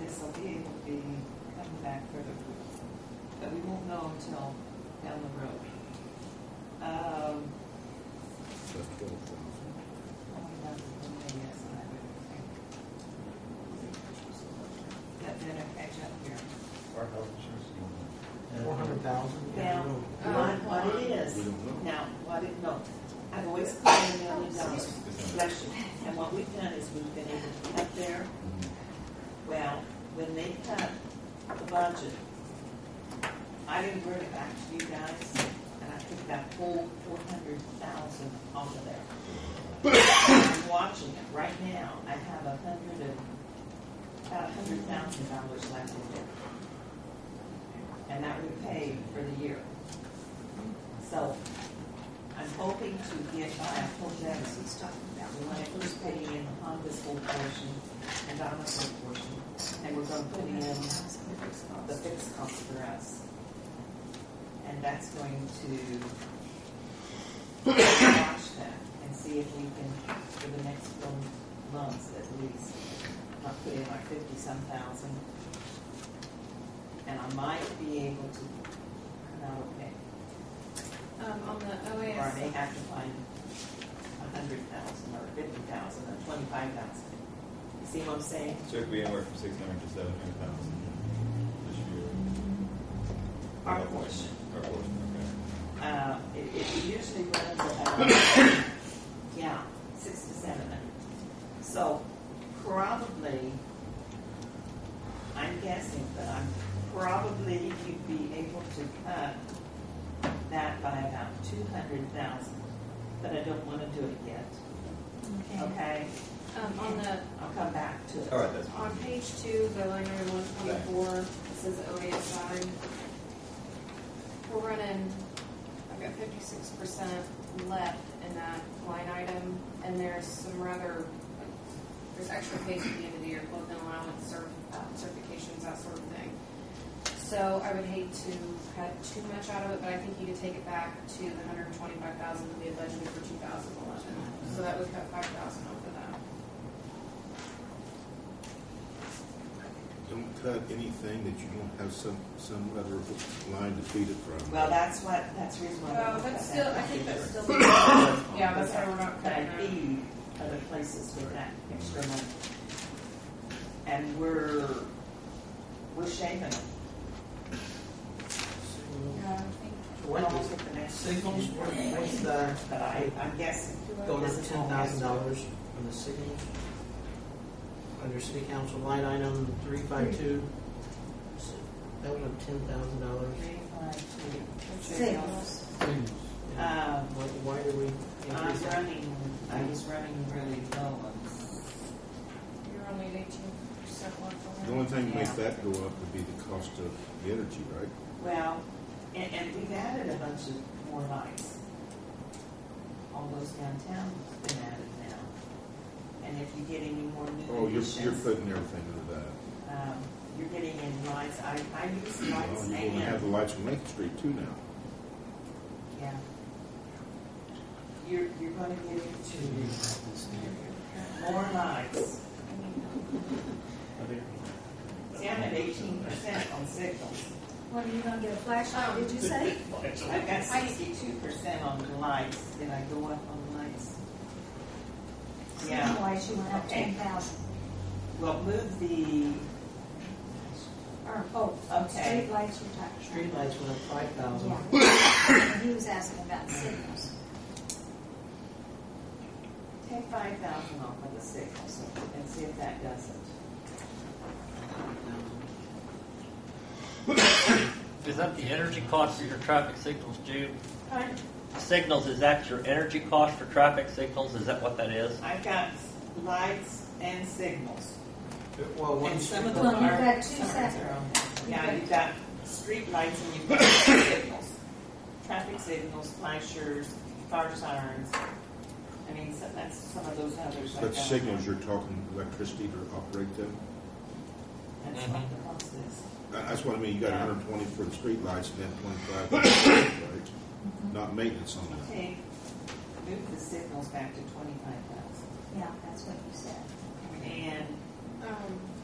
this will be, will be coming back for the, but we won't know until down the road. Um, oh, That's twelve thousand. only that's the way, yes, and I would think. That then I catch up here. Our health insurance. Four hundred thousand? Now, what, what it Uh, We is, don't know. now, what it, no, I've always claimed a million dollars, bless you. And what we've done is we've been able to cut there, well, when they cut the budget, I didn't bring it back to you guys, and I took that whole four hundred thousand off of there. I'm watching it right now, I have a hundred and, about a hundred thousand dollars left in there. And that would pay for the year. So, I'm hoping to get by a whole deficit He's talking about we want to first putting in the Honda's whole portion and Donna's whole portion, and we're going to put in the fixed cost for us. And that's going to watch that and see if we can, for the next loan, loans at least, not put in like fifty-some thousand. And I might be able to come out okay, Um, on the or I may OAS, have to find a hundred thousand or fifty thousand or twenty-five thousand. You see what I'm saying? So it'd be anywhere from six hundred to seven hundred thousand this year. Our portion. Our portion, okay. Uh, it, it usually runs about, yeah, six to seven. So probably, I'm guessing, but I'm probably you'd be able to cut that by about two hundred thousand, but I don't want to do it yet, okay, okay? um, on the, I'll come back to it. All right, that's fine. on page two, the line item one twenty-four, it says OAS salary. We're running, I've got fifty-six percent left in that line item, and there's some rather, there's extra pay at the end of the year, clothing allowance, cert, uh, certifications, that sort of thing. So I would hate to cut too much out of it, but I think you could take it back to the hundred and twenty-five thousand that we had budgeted for two thousand eleven. So that would cut five thousand off of that. Don't cut anything that you don't have some, some other line to feed it from. Well, that's what, that's the reason why. Well, I'm that's gonna still, I think that's still. Yeah, that's why we're not But I cutting that. need other places with that extra money. And we're, we're shaving it. Yeah, Almost at the next. Signals, what- what's the, But I, I'm guessing. go to Doesn't ten help. thousand dollars on the signals? Under city council line item three five two, that was a ten thousand dollars. Three, five, two. Signals. Um, Why, why do we I'm increase that? running, I was running really low on, You're only at eighteen percent left The on only that. thing that makes that go up would be the cost of the energy, right? well, and, and we've added a bunch of more lights. All those downtown have been added now. And if you get any more new Oh, you're, additions. you're putting everything under that. um, you're getting in lights, I, I use lights Well, You're gonna Oh, have the and, lights on Lincoln Street too now. yeah. You're, you're gonna get into more lights. See, I'm at eighteen percent on signals. What, are you gonna get a flashlight, did you say? I've got sixty-two percent on the lights, did I go up on lights? Yeah, Otherwise, you went up ten thousand, well, move the, or, oh, Okay. streetlights you're talking Streetlights went up five thousand. about. Yeah. He was asking about signals. take five thousand off of the signals and see if that does it. Is that the energy cost for your traffic signals, Jude? Fine. Signals, is that your energy cost for traffic signals? Is that what that is? I've got lights and signals. Well, one And some of streetlight. them Well, you've are. got two some are separate. their own. Yeah, you've got street lights and you've got signals. Traffic signals, flashers, fire sirens. I mean, so that's some of those others. like But that. signals, you're talking electricity to operate them? That's what the cost is. That- That's what I mean, you got Yeah. hundred and twenty for the streetlights and then twenty-five for the streetlights, Mm-hmm. not maintenance on that. Okay, move the signals back to twenty-five thousand. Yeah, that's what you said. And Um,